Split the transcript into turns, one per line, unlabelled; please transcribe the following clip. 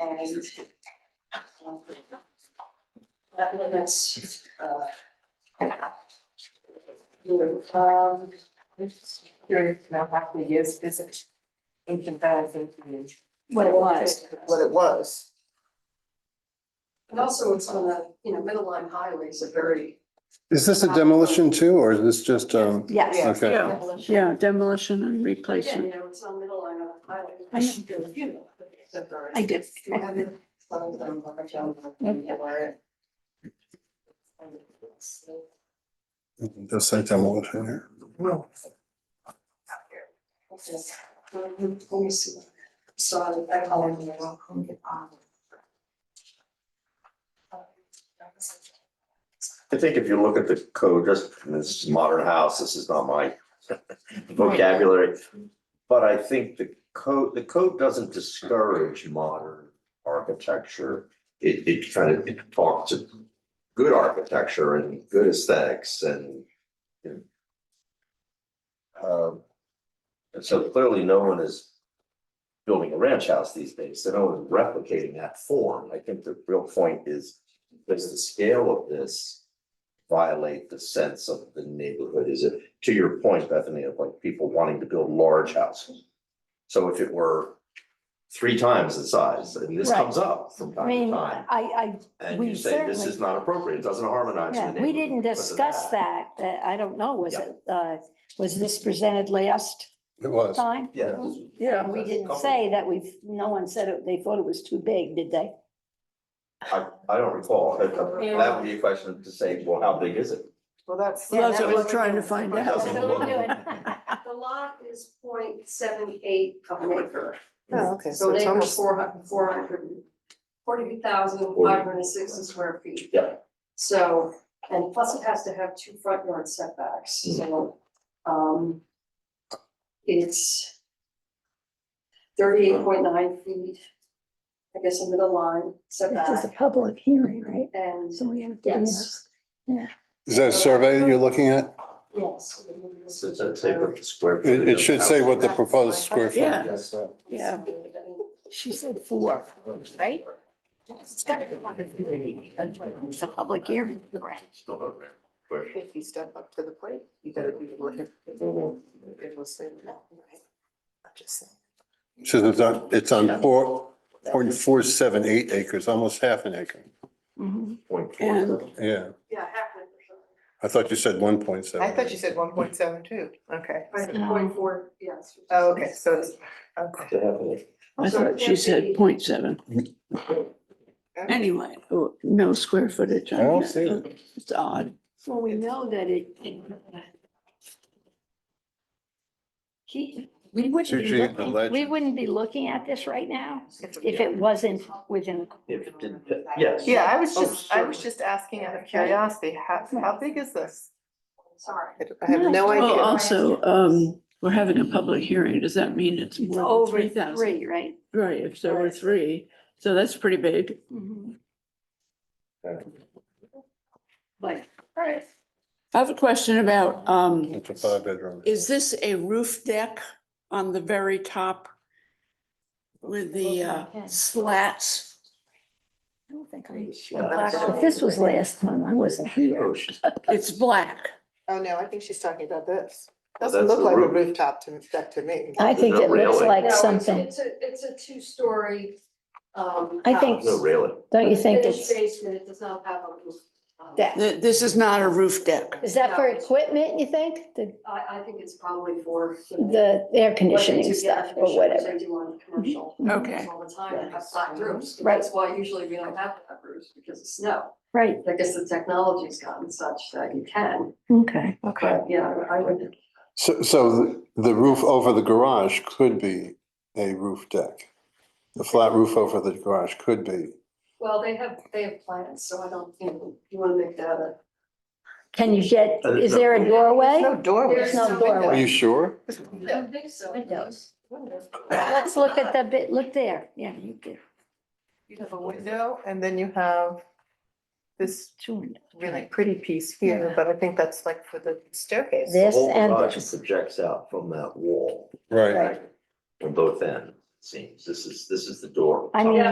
and um, that limits, uh, your, um,
Just curious now how many years is it? Ancient times and
what it was.
what it was.
And also it's on the, you know, middle line highways are very.
Is this a demolition too, or is this just, um,
Yes,
okay,
Yeah. yeah, demolition and
Again,
replacement.
you know, it's on middle line of the highway.
I know. I did.
just say demolition here?
Let me see. Sorry, I call it. you know, I'll get on.
I think if you look at the code, just, this is modern house, this is not my vocabulary. But I think the code, the code doesn't discourage modern architecture. It, it kind of, it talks to good architecture and good aesthetics and. you know. Um, And so clearly no one is building a ranch house these days, so no one's replicating that form. I think the real point is, does the scale of this violate the sense of the neighborhood? Is it, to your point, Bethany, of like people wanting to build large houses? So if it were three times the size, and this
Right.
comes up from
I
time to
mean,
time,
I,
and
we
you say this
certainly-
is not appropriate, it doesn't
I,
harmonize with the
yeah, we didn't
neighborhood because of
discuss that, that, I don't know, was
Yeah.
it, uh, was this presented last
It was.
time?
Yeah.
And We didn't say that we've, no one said it, they thought it was too big, did they?
I, I don't recall. That- That would be a question to say, well, how big is it?
Well, that's.
Yeah,
that's
that
what
was-
we're
trying to
doing.
find out.
That's what we're doing. The lot is 0.78 of an acre.
Oh, okay,
So
so it's
they were
almost,
four hundred, four hundred, forty thousand, five hundred and sixty square feet.
Yeah.
So, and plus it has to have two front yard setbacks,
Mm.
so, um, it's thirty-eight point nine feet, I guess, a middle line
This is a
setback,
public hearing, right?
and
So we have to.
yes,
Is that a survey that you're looking at?
yes.
So it's a taper square.
It,
footage
it
of
should
house.
say what the proposed square foot.
Yeah.
Yes, uh,
Yeah.
She said four, right? It's gotta be one. It's a public hearing, right?
still don't remember. Where-
if you step up to the plate, you gotta be willing. It will say no, right? I'm just saying.
Says it's on, it's on four, point four seven eight acres, almost half an acre.
Mhm.
Point
And-
four.
Yeah,
Yeah, halfway
I thought you said one point seven.
I thought you said one point seven two, okay.
for sure. Point four, yes.
Oh, okay, so it's, okay.
To have it.
I thought she said point seven. Anyway, oh, no square footage. on
I don't
that.
see it.
It's odd.
Well, we know that it. He, we wouldn't
She-
be
she
looking, we
alleged-
wouldn't be looking at this right now if it wasn't within,
If it didn't, yes.
Yeah, I was
Oh,
just, I was
certainly.
just asking out of curiosity, how, how big is this?
Sorry.
I I have no
Thank
Oh,
you.
idea.
also, um, we're having a public hearing. Does that mean it's
it's
more
over
than three thousand?
three, right?
Right, if there were three, so that's pretty big. Mm-hmm.
Mhm.
Okay.
But
I have a question about, um,
It's a five bedroom.
is this a roof deck on the very top? With the uh, slats?
I don't think I,
Black-
but this was last time, I wasn't here.
Oh, she's-
It's black.
Oh, no, I think she's talking about this.
Well, that's
Doesn't look
the
like a
roof.
rooftop to, deck to me.
I think it looks like
No, it's-
something,
It's a, it's a two-story, um.
I think-
No railing.
don't you think
Finished
it's,
basement, it does not have a roof. Um,
That-
Th- This is not a roof deck.
is that for equipment, you think? The,
I, I think it's probably for. you know,
the
what
air
they do
conditioning
get
stuff
efficient,
or
which
whatever. Mm-hmm.
They do on commercial.
Okay.
homes All the time, they have flat roofs,
Right.
that's why usually we don't have flat roofs, because of snow.
Right,
I guess the technology's gotten such that you can,
okay.
Okay,
but yeah, I would,
So, so the roof over the garage could be a roof deck. The flat roof over the garage could be.
well, they have, they have plans, so I don't, you know, you wanna make that a.
Can you get,
Uh,
is
no.
there a
there's
doorway?
no doorway.
There's
no
window.
doorway.
Are you sure?
I think so.
Windows.
Windows.
Let's look at the bit, look there, yeah, you could.
You have a window and then you have this
two windows.
really pretty piece here, but I think that's like for the staircase.
This
Whole
and
garage
this.
Projects out from that wall
Right.
on both ends, it seems. This is, this is the door.
I mean,